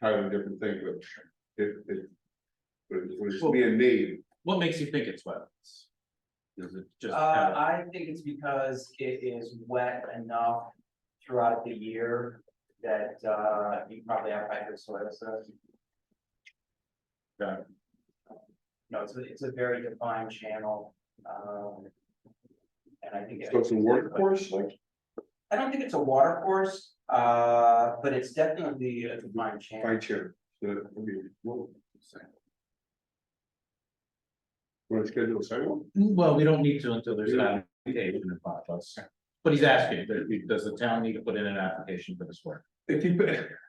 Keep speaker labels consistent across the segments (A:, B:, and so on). A: entirely different thing, but it, it. But it's, when it's being made,
B: What makes you think it's wetlands? Is it just?
C: Uh, I think it's because it is wet enough throughout the year that, uh, you probably have hydro soil, so.
B: Got
C: No, it's, a- it's a very defined channel, um. And I think.
A: so it's a workforce, like,
C: I don't think it's a water course, uh, but it's definitely a defined
A: by
C: channel.
A: chair, so, that- I mean, well. Want to schedule a sidewalk?
B: Well, we don't need to until there's an application in front of us. But he's asking, does- does the town need to put in an application for this work?
A: If you.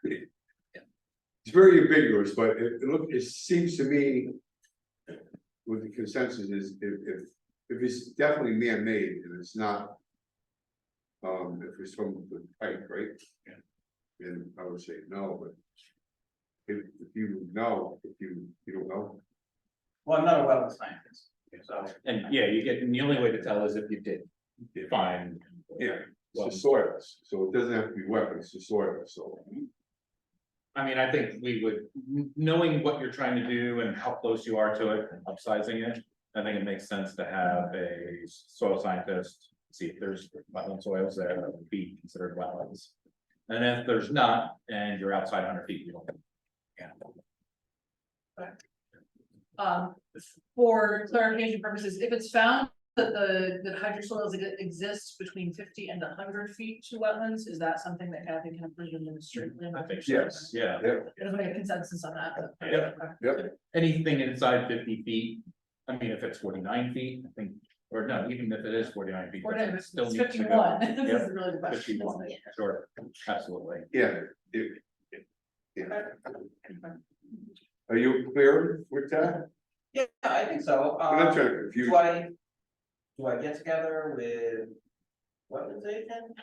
A: It's very ambiguous, but it, it look, it seems to me. With the consensus is if, if, if it's definitely man-made and it's not. Um, if it's from the pipe, right?
B: Yeah.
A: Then I would say no, but. If, if you know, if you, you don't know,
C: Well, I'm not a wetland scientist, so.
B: And yeah, you get, and the only way to tell is if you did find.
A: Yeah.
B: Well,
A: it's the soil, so it doesn't have to be wetlands, it's the soil, so.
B: Mm-hmm. I mean, I think we would, kn- knowing what you're trying to do and how close you are to it, and upsizing it. I think it makes sense to have a soil scientist, see if there's wetland soils there that would be considered wetlands. And if there's not, and you're outside hundred feet, you don't.
D: Um, for clarification purposes, if it's found that the, that hydrosoils ex- exist between fifty and hundred feet to wetlands, is that something that Kathy can approve in the street?
B: Mm, I think so.
A: Yes.
B: Yeah,
D: There's a consensus on that.
B: Yep.
D: Okay.
B: anything inside fifty feet, I mean, if it's forty-nine feet, I think, or no, even if it is forty-nine feet.
D: Or
B: that's-
D: no,
B: it
D: it's
B: still needs to go.
D: fifty-one, this
B: Yep.
D: is really the question.
B: Fifty-one,
D: isn't it?
B: sure, absolutely.
A: Yeah, it- it- yeah. Are you clear with that?
C: Yeah, I think so, um.
A: I'm not trying to confuse.
C: Do I, do I get together with wetlands agent?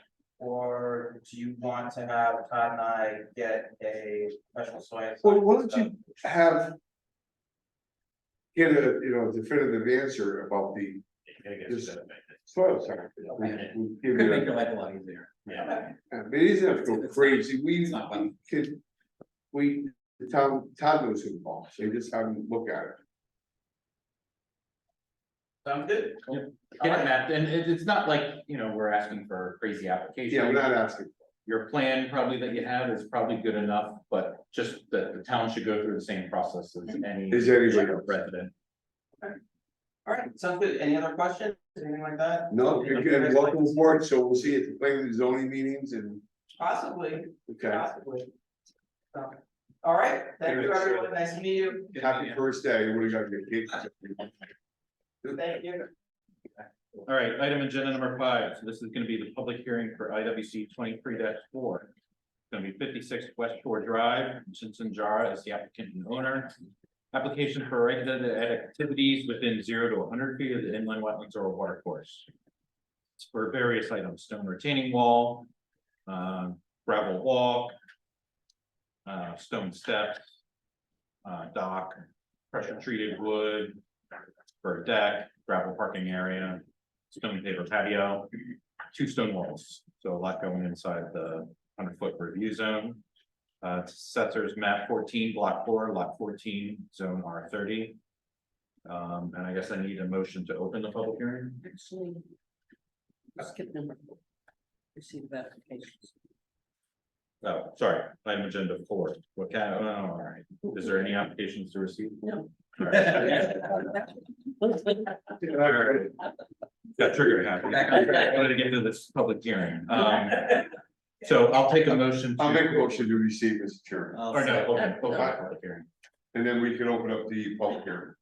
C: Or do you want to have Todd and I get a professional soil?
A: Well, why don't you have. Get a, you know, definitive answer about the soil science.
B: Could make your life a lot easier.
C: Yeah.
A: It isn't go crazy, we
B: It's not funny.
A: could, we, the town, town knows involved, so you just have them look at it.
C: Sounds good?
B: Get it mapped, and it, it's not like, you know, we're asking for crazy
A: Yeah, we're
B: application.
A: not asking,
B: Your plan probably that you have is probably good enough, but just that the town should go through the same process as any
A: is anybody else?
B: resident.
C: All right, sounds good. Any other questions, anything like that?
A: No,
C: Anything
A: again,
C: else?
A: welcome aboard, so we'll see you at the planning and zoning meetings and,
C: Possibly,
A: okay,
C: possibly. So, All right, thank you everyone, nice to meet you,
A: happy first day, what do you got to get?
C: thank you.
B: All right, item agenda number five, so this is gonna be the public hearing for I W C twenty-three four. It's Gonna be fifty-six West Shore Drive, Jensen Jara is the applicant and owner. Application for regulated activities within zero to hundred feet of the inland wetlands or watercourse. It's For various items, stone retaining wall, uh, gravel walk. uh, stone steps. uh, dock, pressure treated wood. For a deck, gravel parking area, stone paper patio, two stone walls, so a lot going inside the hundred foot review zone. Uh, Setzer's map fourteen, block four, lot fourteen, zone R thirty. Um, and I guess I need a motion to open the public hearing.
E: Actually. Skip number. four. Receive the applications.
B: Oh, sorry, item agenda four, what kind of, oh, all right, is there any applications to receive?
E: No.
B: All right.
E: Uh,
B: All right. Got triggered happy, I wanted to get to this public hearing, um. So I'll take a motion. to-
A: I'll make a motion uh, to receive, Mr. Chairman,
B: Or no, open, open the public hearing.
A: and then we can open up the public hearing.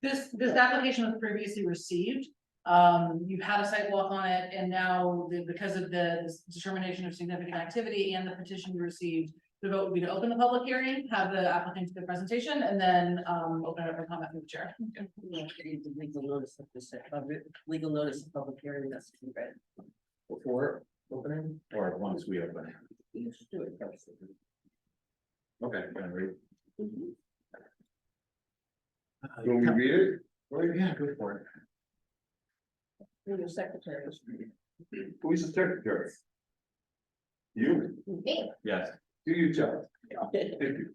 D: This, this application was previously received, um, you had a site walk on it, and now, the- because of the determination of significant activity and the petition you received. The vote would be to open the public hearing, have the applicant do the presentation, and then, um, open it up for comment from the chair.
E: Yeah, you need the Legal notice of this, uh, legal notice of public hearing, that's to be read.
B: Before opening? Or once we open it.
E: You should do it first.
B: Okay. gonna read.
E: Mm-hmm.
A: Can we read it?
B: Well, yeah, go for it.
E: Through your secretary.
A: Who's the secretary? You,
B: Yes,
A: do your job, thank you.